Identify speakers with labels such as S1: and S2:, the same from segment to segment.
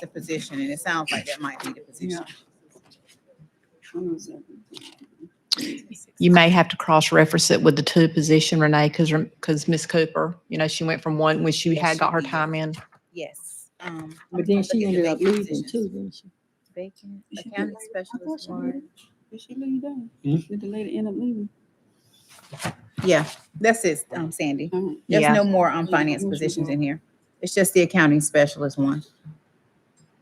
S1: the position, and it sounds like that might be the position.
S2: You may have to cross-reference it with the two position, Renee, because, because Ms. Cooper, you know, she went from one when she
S1: Yes,
S2: had
S1: she
S2: got her
S1: did.
S2: time in.
S1: Yes. um,
S3: But then
S1: I'm
S3: she
S1: looking at
S3: ended up
S1: vacant
S3: leaving
S1: positions.
S3: too, didn't she?
S1: Vacant
S3: She did.
S1: accounting
S3: I thought
S1: specialist
S3: she did.
S1: one.
S3: Did she leave down?
S4: Hmm?
S3: Did the lady end up leaving?
S1: Yeah, that's it, um, Sandy.
S3: All right.
S1: There's
S2: Yeah.
S1: no more, um,
S3: Yeah,
S1: finance
S3: what you
S1: positions
S3: got?
S1: in here. It's just the accounting specialist one.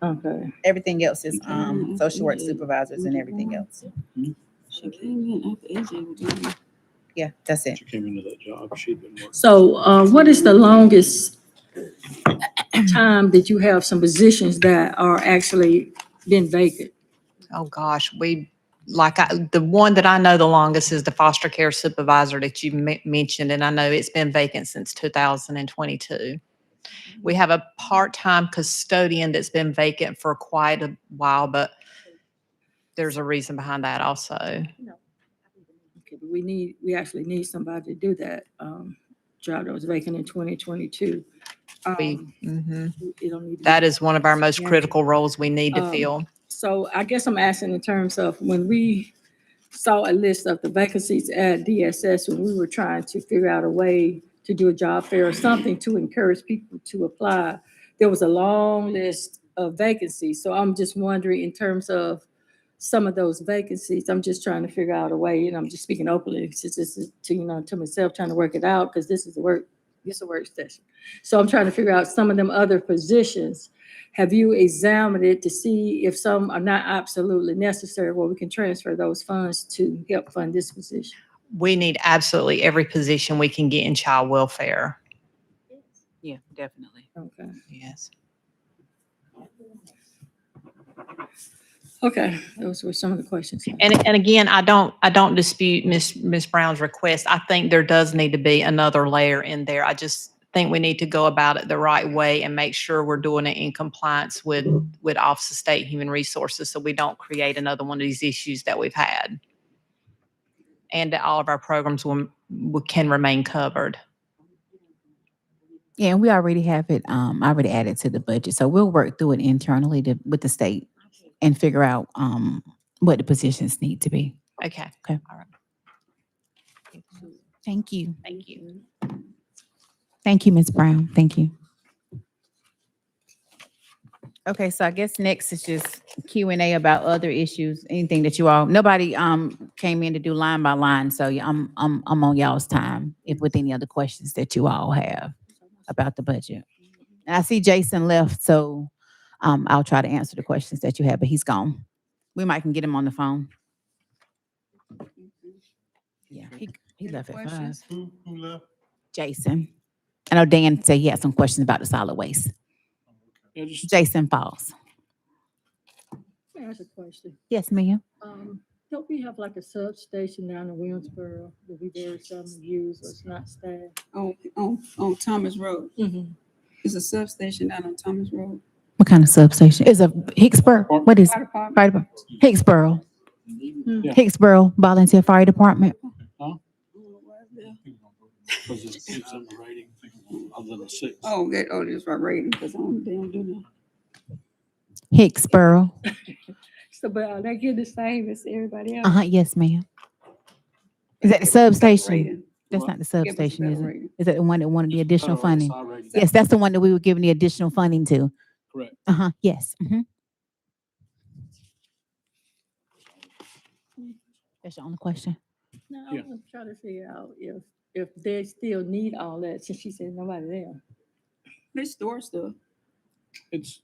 S3: Okay.
S1: Everything else is, um,
S3: Mhm.
S1: social work
S3: Yeah.
S1: supervisors and everything else.
S3: She came in after AJ was leaving.
S1: Yeah, that's it.
S4: She came into that job, she'd been working.
S5: So uh, what is the longest time that you have some positions that are actually been vacant?
S2: Oh, gosh, we, like, I, the one that I know the longest is the foster care supervisor that you me- mentioned, and I know it's been vacant since two thousand and twenty-two. We have a part-time custodian that's been vacant for quite a while, but there's a reason behind that also.
S5: Okay, but We need, we actually need somebody to do that um, job that was vacant in 2022.
S2: We,
S5: Um,
S2: mhm.
S5: it don't need to be-
S2: that is one of our most
S5: Yeah.
S2: critical roles we need to
S5: Um,
S2: fill.
S5: So I guess I'm asking in terms of when we saw a list of the vacancies at DSS, when we were trying to figure out a way to do a job fair or something to encourage people to apply, there was a long list of vacancies. So I'm just wondering in terms of some of those vacancies, I'm just trying to figure out a way, and I'm just speaking openly, since this is to, you know, to myself, trying to work it out, because this is a work, this is a work session. So I'm trying to figure out some of them other positions have you examined it to see if some are not absolutely necessary, where we can transfer those funds to help fund this position?
S2: we need absolutely every position we can get in child welfare.
S6: Yeah, definitely.
S5: Okay.
S2: Yes.
S5: Okay, those were some of the questions.
S2: And, and again, I don't, I don't dispute Ms. Ms. Brown's request. I think there does need to be another layer in there. I just think we need to go about it the right way and make sure we're doing it in compliance with, with Office of State Human Resources so we don't create another one of these issues that we've had. And that all of our programs will, will- can remain covered.
S7: Yeah, and we already have it, um, I already added to the budget, so we'll work through it internally to, with the state and figure out, um, what the positions need to be.
S2: Okay.
S7: Okay.
S2: All right.
S7: Thank you.
S2: Thank you.
S7: Thank you, Ms. Brown. Thank you.
S1: Okay, so I guess next is just Q and A about other issues, anything that you all, nobody, um, came in to do line by line, so yeah, I'm, I'm, I'm on y'all's time.
S7: If with any other questions that you all have about the budget. And I see Jason left, so, um, I'll try to answer the questions that you have, but he's gone. We might can get him on the phone. Yeah, he, he left at five.
S4: Who, who left?
S7: Jason. I know Dan said he had some questions about the solid waste.
S4: Yeah, just
S7: Jason Falls.
S5: That's a question.
S7: Yes, ma'am.
S5: Um, Don't we have like a substation down in Williamsboro that we very seldom use or it's not staffed?
S3: On, on, on Oh, Thomas Road.
S7: Mm-hmm.
S5: Mhm.
S3: It's a substation down on Thomas Road.
S7: What kind of substation? Is a Hicksboro, what is,
S3: Fire department.
S7: fire department? Hicksboro,
S4: Yeah.
S7: Hicksboro Volunteer Fire Department.
S3: Oh,
S4: because it's six in the rating, other than a six.
S3: Oh, that, oh, that's right, rating, because I don't, they don't do that.
S7: Hicksboro.
S5: So, but are they getting the same as everybody else?
S7: Uh-huh, yes, ma'am. Is that the substation?
S3: Rating.
S7: That's not the
S3: Give us a
S7: substation, is
S3: better
S7: it?
S3: rating.
S7: Is that the one that wanted the additional
S4: Federal
S7: funding?
S4: SI rating.
S7: Yes, that's the one that we were giving the additional funding to.
S4: Correct.
S7: Uh-huh, yes. mhm. That's your only question?
S5: No,
S4: Yeah.
S5: I'm trying to figure out if, if they still need all that, since she said nobody there.
S3: They store stuff.
S4: It's,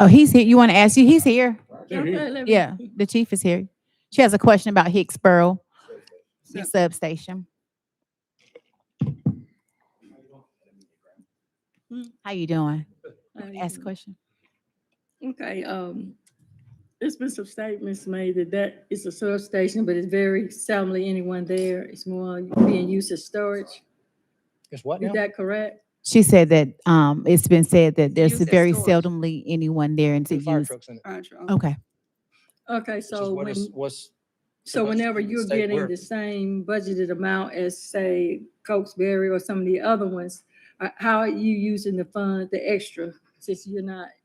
S7: Oh, he's here. You want to ask you? He's here.
S4: they're here.
S5: Okay, let me-
S7: Yeah, the chief is here. She has a question about Hicksboro
S3: Yeah.
S7: substation.
S5: Hmm.
S7: How you doing?
S5: I don't
S7: Ask a
S5: know.
S7: question.
S5: Okay, um, there's been some statements made that that is a substation, but it's very seldomly anyone there. It's more being used as storage.
S8: It's what
S5: Is
S8: now?
S5: that correct?
S7: She said that, um, it's been said that there's
S3: used as
S7: very
S3: storage.
S7: seldomly anyone there and to
S8: Two fire
S7: use.
S8: trucks in it.
S3: Fire truck.
S7: Okay,
S5: Okay,
S8: which is
S5: so
S8: what
S5: when,
S8: is- What's,
S5: so
S8: supposed to
S5: whenever
S8: be in
S5: you're
S8: state
S5: getting
S8: work.
S5: the same budgeted amount as, say, Cokesbury or some of the other ones, uh, how are you using the fund, the extra, since you're not